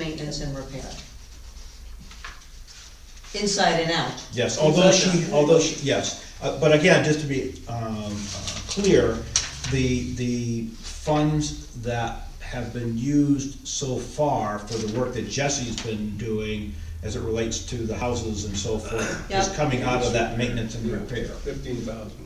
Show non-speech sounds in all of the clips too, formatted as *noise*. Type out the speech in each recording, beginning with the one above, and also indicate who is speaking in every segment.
Speaker 1: maintenance, and repair. Inside and out.
Speaker 2: Yes, although
Speaker 1: Inside
Speaker 2: she,
Speaker 1: and out.
Speaker 2: although she, yes, Uh, but again, just to be um, uh, clear, the, the funds that have been used so far for the work that Jesse's been doing as it relates to the houses and so forth, is
Speaker 1: Yep.
Speaker 2: coming out of that maintenance and repair.
Speaker 3: Fifteen thousand.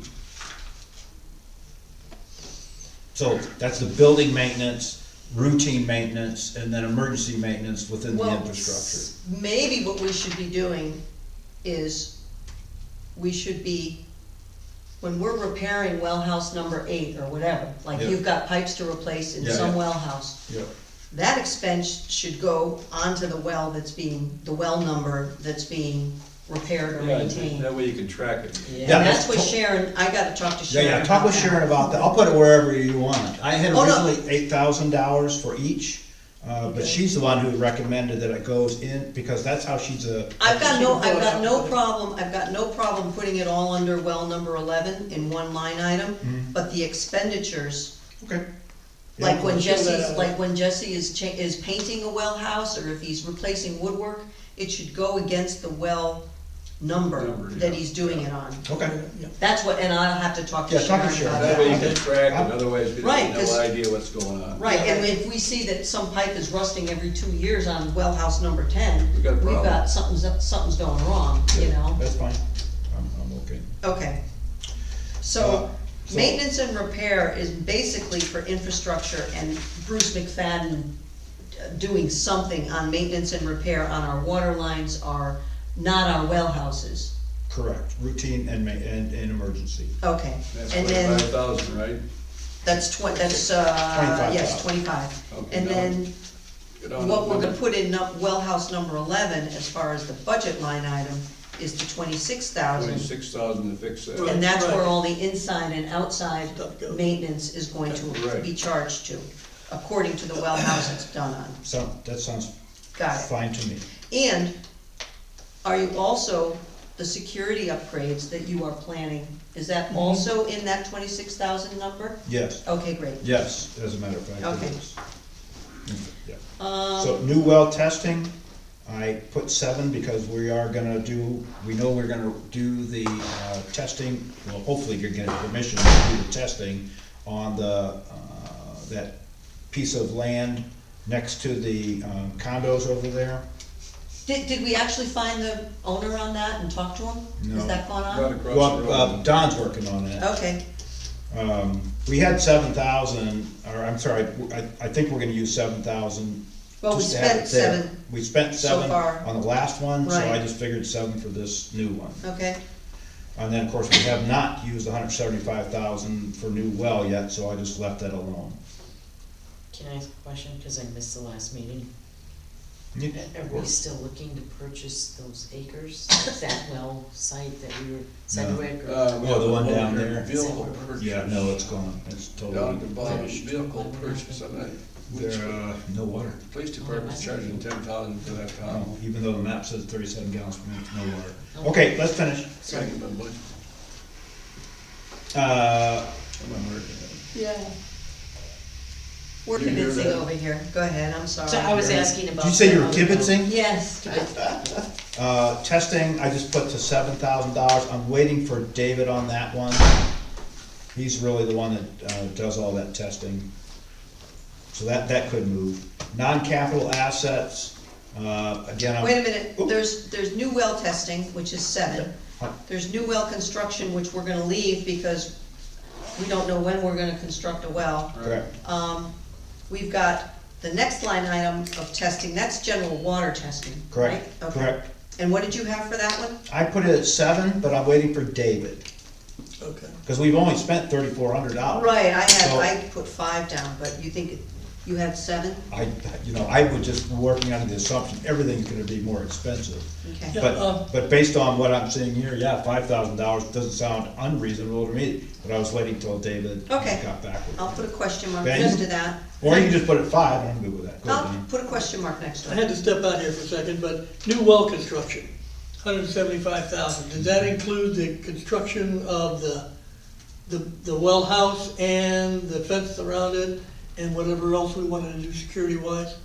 Speaker 2: So that's the building maintenance, routine maintenance, and then emergency maintenance within the
Speaker 1: Well,
Speaker 2: infrastructure.
Speaker 1: s- Maybe what we should be doing is, we should be, when we're repairing well house number eight or whatever, like
Speaker 2: Yeah.
Speaker 1: you've got pipes to replace in
Speaker 2: Yeah,
Speaker 1: some
Speaker 2: yeah.
Speaker 1: well house,
Speaker 2: Yeah,
Speaker 1: that expense should go onto the well that's being, the well number that's being repaired or maintained.
Speaker 3: That way you can track it.
Speaker 1: And
Speaker 2: Yeah,
Speaker 1: that's what
Speaker 2: that's-
Speaker 1: Sharon, I gotta talk to
Speaker 2: yeah,
Speaker 1: Sharon.
Speaker 2: yeah, talk with
Speaker 1: that.
Speaker 2: Sharon about that, I'll put it wherever you want. I had
Speaker 1: Oh, no.
Speaker 2: originally eight thousand dollars for each, uh, but she's the one who recommended that it goes in, because that's how she's a.
Speaker 1: I've got no, I've got no problem, I've got no problem putting it all under well number eleven in one line item,
Speaker 2: Mhm.
Speaker 1: but the expenditures,
Speaker 2: Okay. Yeah,
Speaker 1: like when
Speaker 2: cool.
Speaker 1: Jesse's, like when Jesse is cha- is painting a well house, or if he's replacing woodwork, it should go against the well number
Speaker 3: Number,
Speaker 1: that
Speaker 3: yeah.
Speaker 1: he's doing it on.
Speaker 2: Okay,
Speaker 1: That's what, and I'll have to talk to
Speaker 2: Yeah, talk to
Speaker 1: Sharon
Speaker 2: Sharon.
Speaker 1: about
Speaker 3: That way you
Speaker 1: that.
Speaker 3: can track it, otherwise you
Speaker 1: Right,
Speaker 3: have
Speaker 1: 'cause-
Speaker 3: no idea what's going on.
Speaker 1: Right, and if we see that some pipe is rusting every two years on well house number ten, we've
Speaker 3: We've got a problem.
Speaker 1: got, something's, something's going wrong, you know?
Speaker 2: that's fine, I'm, I'm okay.
Speaker 1: Okay.
Speaker 2: Uh,
Speaker 1: So,
Speaker 2: so-
Speaker 1: maintenance and repair is basically for infrastructure and Bruce McFadden uh, doing something on maintenance and repair on our water lines, our, not our well houses.
Speaker 2: Correct, routine and ma- and, and emergency.
Speaker 1: Okay,
Speaker 3: That's
Speaker 1: and then,
Speaker 3: twenty-five thousand, right?
Speaker 1: that's twen, that's, uh, yes, twenty-five.
Speaker 3: Okay,
Speaker 1: And
Speaker 3: now-
Speaker 1: then,
Speaker 3: Get on
Speaker 1: what we're
Speaker 3: with
Speaker 1: gonna
Speaker 3: it.
Speaker 1: put in num- well house number eleven, as far as the budget line item, is the twenty-six thousand.
Speaker 3: Twenty-six thousand to fix that. Uh,
Speaker 1: And that's where
Speaker 4: Right.
Speaker 1: all the inside and outside
Speaker 4: Stuff goes.
Speaker 1: maintenance is going to
Speaker 3: Right.
Speaker 1: be charged to, according to the well house it's done on.
Speaker 2: So, that sounds
Speaker 1: Got it.
Speaker 2: fine to me.
Speaker 1: And are you also, the security upgrades that you are planning, is that also in that twenty-six thousand number?
Speaker 2: Yes,
Speaker 1: Okay, great.
Speaker 2: yes, as a matter of fact, it
Speaker 1: Okay.
Speaker 2: is. Yeah. So
Speaker 1: Um,
Speaker 2: new well testing, I put seven because we are gonna do, we know we're gonna do the, uh, testing, well, hopefully you're getting permission to do the testing on the, uh, that piece of land next to the um, condos over there.
Speaker 1: did, did we actually find the owner on that and talk to him?
Speaker 2: No.
Speaker 1: Has that gone
Speaker 3: Right
Speaker 1: on?
Speaker 3: across the
Speaker 2: Well, uh,
Speaker 3: road.
Speaker 2: Don's working on that.
Speaker 1: Okay,
Speaker 2: Um, we had seven thousand, or I'm sorry, I, I think we're gonna use seven thousand.
Speaker 1: Well, we spent seven
Speaker 2: We spent
Speaker 1: so
Speaker 2: seven
Speaker 1: far.
Speaker 2: on the last one, so I
Speaker 1: Right.
Speaker 2: just figured seven for this new one.
Speaker 1: okay,
Speaker 2: And then, of course, we have not used hundred seventy-five thousand for new well yet, so I just left that alone.
Speaker 5: Can I ask a question, cause I missed the last meeting?
Speaker 2: Yeah,
Speaker 5: Are
Speaker 2: of
Speaker 5: we
Speaker 2: course.
Speaker 5: still looking to purchase those
Speaker 2: *coughs*
Speaker 5: acres, that well site that we were, Sedgwick or?
Speaker 3: Uh, we
Speaker 2: Oh, the
Speaker 3: have
Speaker 2: one
Speaker 3: a
Speaker 2: down
Speaker 3: motor
Speaker 2: there.
Speaker 3: Vehicle purchase.
Speaker 2: Yeah, no, it's gone, it's
Speaker 3: Down
Speaker 2: totally,
Speaker 3: at the bottom, vehicle purchase, I'm not, which,
Speaker 2: there, uh, no water.
Speaker 3: police department's charging ten thousand for that
Speaker 2: Oh,
Speaker 3: town.
Speaker 2: Even though the map says thirty-seven gallons per minute, no water.
Speaker 5: Okay.
Speaker 2: Okay, let's finish.
Speaker 3: Thank you, but
Speaker 2: Uh,
Speaker 3: I'm not hurting.
Speaker 1: yeah. We're
Speaker 3: You hear
Speaker 1: convincing
Speaker 3: that?
Speaker 1: over here, go ahead, I'm sorry.
Speaker 5: So I was asking about.
Speaker 2: uh, did you say you
Speaker 5: the
Speaker 2: were
Speaker 5: other one.
Speaker 2: kibitzing?
Speaker 1: Yes,
Speaker 2: Uh, testing, I just put to seven thousand dollars, I'm waiting for David on that one. He's really the one that, uh, does all that testing. So that, that could move. Non-capital assets, uh, again, I'm.
Speaker 1: Wait a minute,
Speaker 2: Oop.
Speaker 1: there's, there's new well testing, which is seven.
Speaker 2: Huh.
Speaker 1: There's new well construction, which we're gonna leave because we don't know when we're gonna construct a well.
Speaker 2: Correct,
Speaker 1: Um, we've got the next line item of testing, that's general water testing, right?
Speaker 2: correct,
Speaker 1: Okay.
Speaker 2: correct.
Speaker 1: And what did you have for that one?
Speaker 2: I put it at seven, but I'm waiting for David,
Speaker 4: Okay.
Speaker 2: cause we've only spent thirty-four hundred dollars.
Speaker 1: Right, I
Speaker 2: So-
Speaker 1: had, I put five down, but you think, you had seven?
Speaker 2: I, you know, I was just working under the assumption everything's gonna be more expensive.
Speaker 1: Okay.
Speaker 4: Yeah, um,
Speaker 2: But, but based on what I'm seeing here, yeah, five thousand dollars doesn't sound unreasonable to me, but I was waiting till David
Speaker 1: Okay.
Speaker 2: got back with
Speaker 1: I'll
Speaker 2: me.
Speaker 1: put a question mark
Speaker 2: Ben?
Speaker 1: next to that.
Speaker 2: Or you can just put it five, I'm good with that. Go ahead,
Speaker 1: I'll
Speaker 2: Dan.
Speaker 1: put a question mark next to
Speaker 4: I
Speaker 1: it.
Speaker 4: had to step out here for a second, but new well construction, hundred and seventy-five thousand, does that include the construction of the, the, the well house and the fence around it and whatever else we wanted to do security wise?